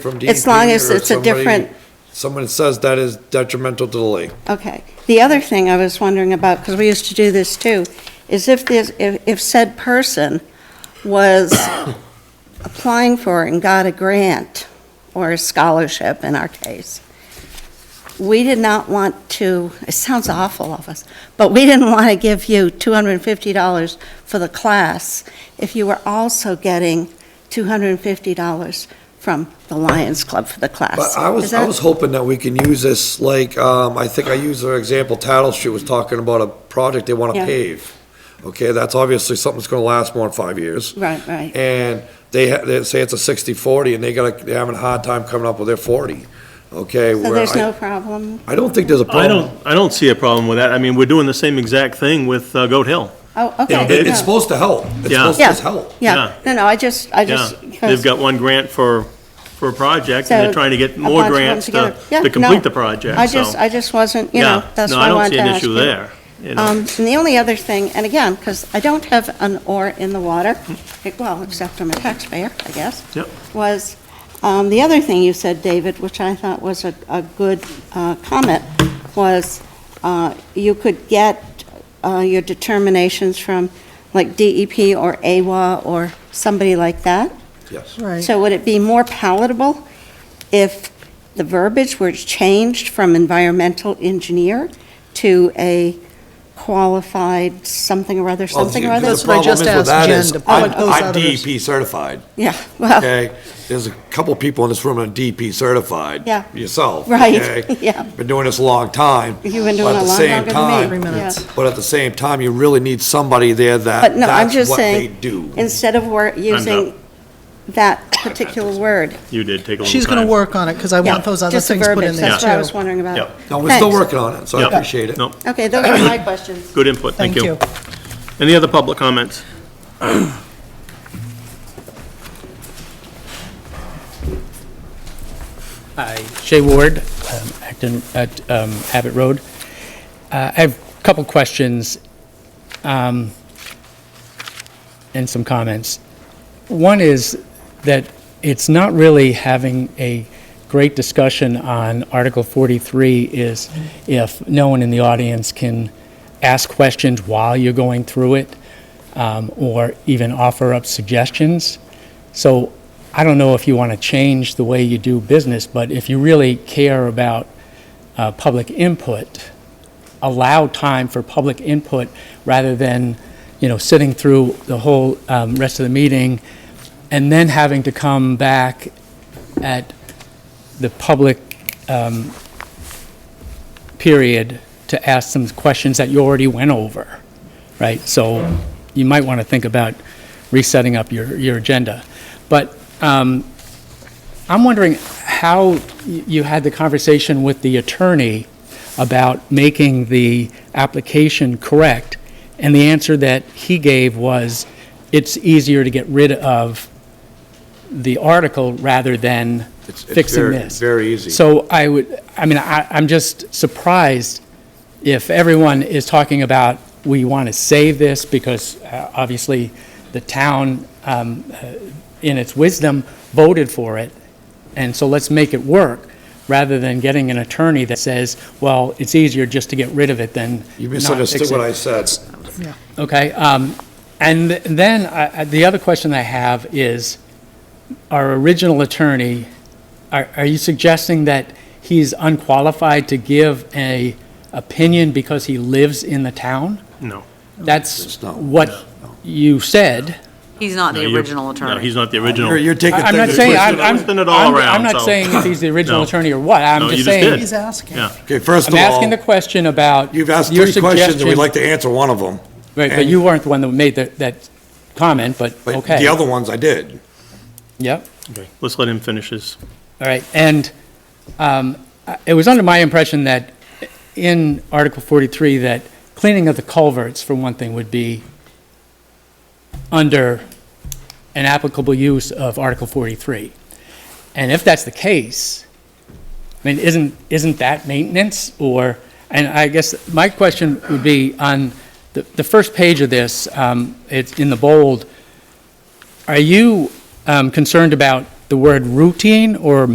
from DEP. As long as or it's a somebody- different- Someone says that is detrimental to the lake. Okay. The other thing I was wondering about, because we used to do this too, is if this, if if said person was applying for and got a grant or a scholarship in our case, we did not want to, it sounds awful of us, but we didn't want to give you $250 for the class if you were also getting $250 from the Lions Club for the class. But I Is was, I that- was hoping that we can use this, like, um, I think I used their example, Tattle Street was talking about a project they wanna Yeah. pave. Okay, that's obviously something that's gonna last more than five years. Right, right. And they, ha- they say it's a sixty forty, and they gotta, they're having a hard time coming up with their forty, okay? So where there's I- no problem? I don't think there's a I problem. don't, I don't see a problem with that. I mean, we're doing the same exact thing with uh, Goat Hill. Oh, okay. Yeah, it- It- no. It's supposed to help. It's Yeah. supposed to Yeah, just help. Yeah, no, no, I just, I Yeah, just. they've got one grant for, for a project, and So, they're trying to a get bunch more of them grants to, together. Yeah, to no. complete the project, I so- just, I just wasn't, you know, Yeah, that's why I wanted to No, I don't ask see you. an issue there, you know. Um, And the only other thing, and again, because I don't have an oar in the water, eh, well, except I'm a taxpayer, I guess. Hmm. Yep. Was, um, the other thing you said, David, which I thought was a, a good uh, comment, was uh, you could get uh, your determinations from like DEP or AWA or somebody like that. Yes. Right. So would it be more palatable if the verbiage were changed from environmental engineer to a qualified something or other, Well, something the- or other? That's what I the problem just is with asked that Jen is to put I'm- those I'm out of his- DEP certified, Yeah, well, okay? There's a couple people in this room that are DEP certified. Yeah. Yourself. Right, okay? yeah. Been doing this a long time. You've but been doing at a the lot same longer than me. time- Three minutes. Yeah. But at the same time, you really need somebody there that, but no, I'm that's just what they saying, do. instead of wor- using that particular word. You did take a little time. She's going to work on it because I Yeah, want those other just the things put in verbiage, there That's what I was too. wondering Yep. about. No, we're still Thanks. working on it, so I Yep. appreciate it. No, Okay, those are my questions. good input, thank Thank you. you. Any other public comments? Hi, Jay Ward, um, Acton, at um, Abbott Road. Uh, I have a couple questions um, and some comments. One is that it's not really having a great discussion on Article 43 is if no one in the audience can ask questions while you're going through it um, or even offer up suggestions. So I don't know if you want to change the way you do business, but if you really care about uh, public input, allow time for public input rather than, you know, sitting through the whole um, rest of the meeting and then having to come back at the public um, period to ask some questions that you already went over, right? So you might want to think about resetting up your, your agenda. But um, I'm wondering how y- you had the conversation with the attorney about making the application correct, and the answer that he gave was, it's easier to get rid of the article rather than It's- it's fixing very- this. very easy. So I would, I mean, I, I'm just surprised if everyone is talking about, we want to save this because uh, obviously the town, um, uh, in its wisdom, voted for it, and so let's make it work, rather than getting an attorney that says, well, it's easier just to get rid of it than You not misunderstood fix it." what I said. Okay, um, and th- then I- I- the other question I have is, our original attorney, are are you suggesting that he's unqualified to give a opinion because he lives in the town? No. That's It's not- what you said. He's not the No, you're- original attorney. No, he's not the You're, original. you're taking I- I'm not things. saying, twisted- I'm, I'm, twisted it all I'm- around, I'm not so- saying if he's the original No. attorney or what, No, I'm you just just saying. did. He's asking. Yeah. Okay, first of I'm asking the all, question about your you've asked suggestion. three questions, and we'd like to answer one of them. Right, but and- you weren't the one that made that, that comment, but, But okay. the other ones I did. Yep. Okay, Let's let him finish his, All right, and um, I- it was under my impression that in Article 43, that cleaning of the culverts, for one thing, would be under an applicable use of Article 43. And if that's the case, I mean, isn't, isn't that maintenance, or, and I guess my question would be on the, the first page of this, um, it's in the bold, are you um, concerned about the word routine or